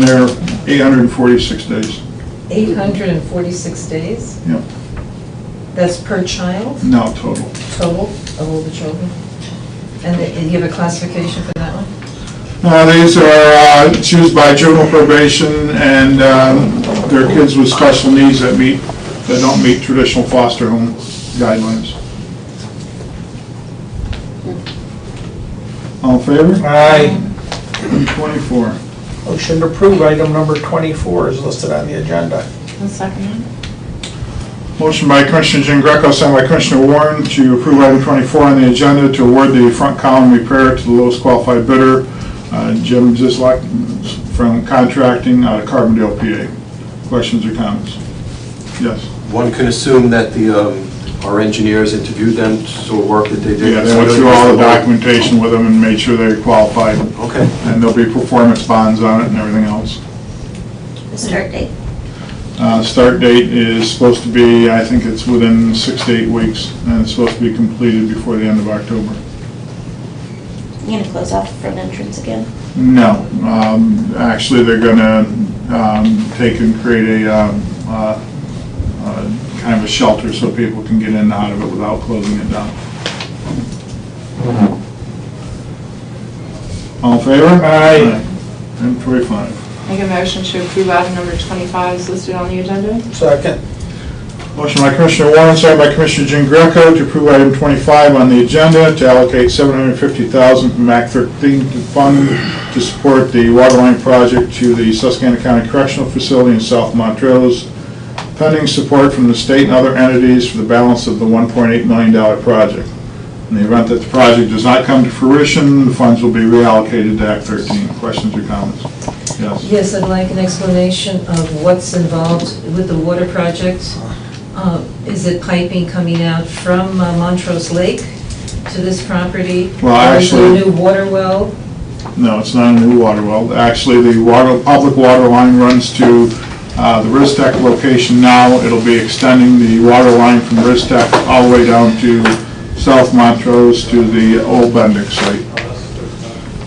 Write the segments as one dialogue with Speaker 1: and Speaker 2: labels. Speaker 1: been there 846 days.
Speaker 2: 846 days?
Speaker 1: Yeah,
Speaker 2: That's per child,
Speaker 1: now total.
Speaker 2: total of all the children? And they- and you have a classification for that one?
Speaker 1: Uh, These are uh, choose by juvenile probation and um, they're kids with special needs that meet, that don't meet traditional foster home guidelines. All in favor?
Speaker 3: Aye.
Speaker 1: Item 24.
Speaker 3: Motion to approve item number 24 is listed on the agenda.
Speaker 1: Motion by Commissioner Jean Greco, second by Commissioner Warren to approve item 24 on the agenda to award the front column repair to the lowest qualified bidder, uh, Jim Zislak from Contracting out of Carbondale, PA. Questions or comments? Yes.
Speaker 4: One can assume that the, um, our engineers interviewed them, so work that they did.
Speaker 1: Yeah, they went through all the documentation with them and made sure they qualified,
Speaker 4: Okay.
Speaker 1: and there'll be performance bonds on it and everything else.
Speaker 5: The start date?
Speaker 1: Uh, Start date is supposed to be, I think it's within six to eight weeks, and it's supposed to be completed before the end of October.
Speaker 5: You gonna close off the front entrance again?
Speaker 1: No, um, actually, they're gonna, um, take and create a, um, uh, uh, kind of a shelter so people can get in and out of it without closing it down. All in favor?
Speaker 3: Aye.
Speaker 1: Item twenty-five.
Speaker 6: Make a motion to approve item number 25 is listed on the agenda.
Speaker 3: Second.
Speaker 1: Motion by Commissioner Warren, second by Commissioner Jean Greco to approve item twenty-five on the agenda to allocate seven hundred and fifty thousand from Act thirteen to fund to support the waterline project to the Susquehanna County Correctional Facility in South Montrose, pending support from the state and other entities for the balance of the one point eight million dollar project. In the event that the project does not come to fruition, the funds will be reallocated to Act thirteen. Questions or comments? Yes.
Speaker 2: Yes, I'd like an explanation of what's involved with the water project. Uh, Is it piping coming out from uh, Montrose Lake to this property?
Speaker 1: Well,
Speaker 2: Or is it
Speaker 1: actually-
Speaker 2: a new water well?
Speaker 1: No, it's not a new water well. Actually, the water, public water line runs to uh, the Ristec location now. It'll be extending the water line from Ristec all the way down to South Montrose to the old Bendix site.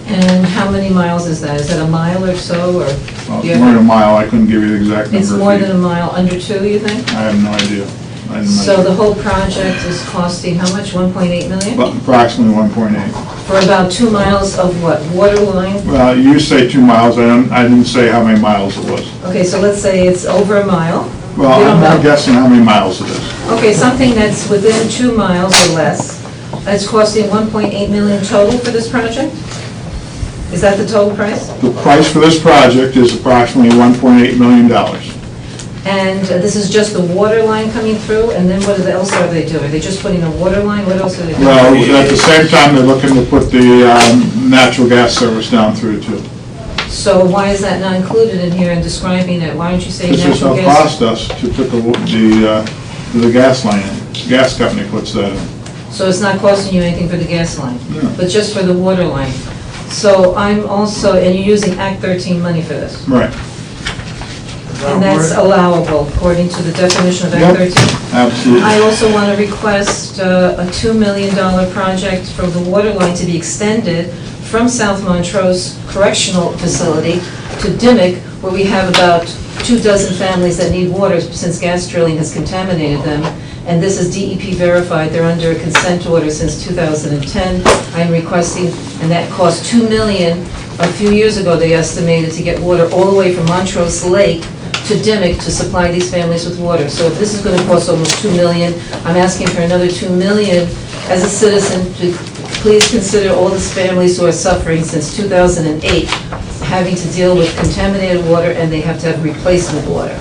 Speaker 2: And how many miles is that? Is that a mile or so, or?
Speaker 1: Well,
Speaker 2: Yeah.
Speaker 1: It's more than a mile, I couldn't give you the exact number.
Speaker 2: It's
Speaker 1: of
Speaker 2: more
Speaker 1: feet.
Speaker 2: than a mile, under two, you think?
Speaker 1: I have no idea. I didn't
Speaker 2: So the
Speaker 1: measure.
Speaker 2: whole project is costing how much, 1.8 million?
Speaker 1: But Approximately 1.8.
Speaker 2: For about two miles of what, water line?
Speaker 1: Well, you say two miles, I don't, I didn't say how many miles it was.
Speaker 2: Okay, so let's say it's over a mile. We
Speaker 1: Well,
Speaker 2: don't
Speaker 1: I'm not
Speaker 2: know.
Speaker 1: guessing how many miles it is.
Speaker 2: Okay, something that's within two miles or less, that's costing 1.8 million total for this project? Is that the total price?
Speaker 1: The price for this project is approximately 1.8 million dollars.
Speaker 2: And uh, this is just the water line coming through, and then what else are they doing? Are they just putting a water line? What else are they doing?
Speaker 1: Well, at the same time, they're looking to put the um, natural gas service down through too.
Speaker 2: So why is that not included in here in describing it? Why don't you say
Speaker 1: This is how
Speaker 2: natural
Speaker 1: it
Speaker 2: gas?
Speaker 1: cost us to put the, the, uh, the gas line in. Gas company puts that in.
Speaker 2: So it's not costing you anything for the gas line,
Speaker 1: No.
Speaker 2: but just for the water line. So I'm also, and you're using Act 13 money for this,
Speaker 1: Right,
Speaker 2: and that's allowable according to the definition of Act
Speaker 1: Yep.
Speaker 2: 13? I
Speaker 1: absolutely.
Speaker 2: also want to request uh, a $2 million project from the water line to be extended from South Montrose Correctional Facility to Dimick, where we have about two dozen families that need water since gas drilling has contaminated them. And this is DEP verified, they're under a consent order since 2010. I'm requesting, and that cost $2 million. A few years ago, they estimated to get water all the way from Montrose Lake to Dimick to supply these families with water. So if this is gonna cost almost two million, I'm asking for another two million as a citizen to please consider all these families who are suffering since two thousand and eight, having to deal with contaminated water and they have to have replacement water.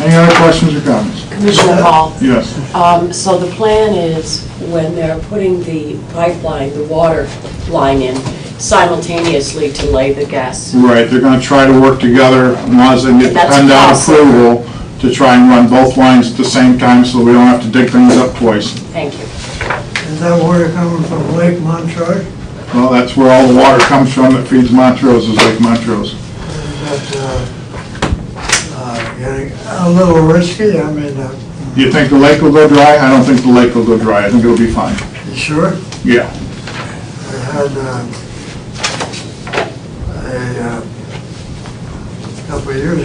Speaker 1: Any other questions or comments?
Speaker 7: Commissioner Hall,
Speaker 1: Yes,
Speaker 7: um, so the plan is when they're putting the pipeline, the water line in simultaneously to lay the gas.
Speaker 1: right, they're gonna try to work together, as long as they get
Speaker 7: That's
Speaker 1: PennDOT
Speaker 7: possible.
Speaker 1: approval, to try and run both lines at the same time, so we don't have to dig things up twice.
Speaker 7: Thank you.
Speaker 8: Is that water coming from Lake Montrose?
Speaker 1: Well, that's where all the water comes from that feeds Montrose, is Lake Montrose.
Speaker 8: That's, uh, uh, getting a little risky, I mean, uh,
Speaker 1: You think the lake will go dry? I don't think the lake will go dry, I think it'll be fine.
Speaker 8: you sure?
Speaker 1: Yeah.
Speaker 8: I had, um, a, uh, couple of years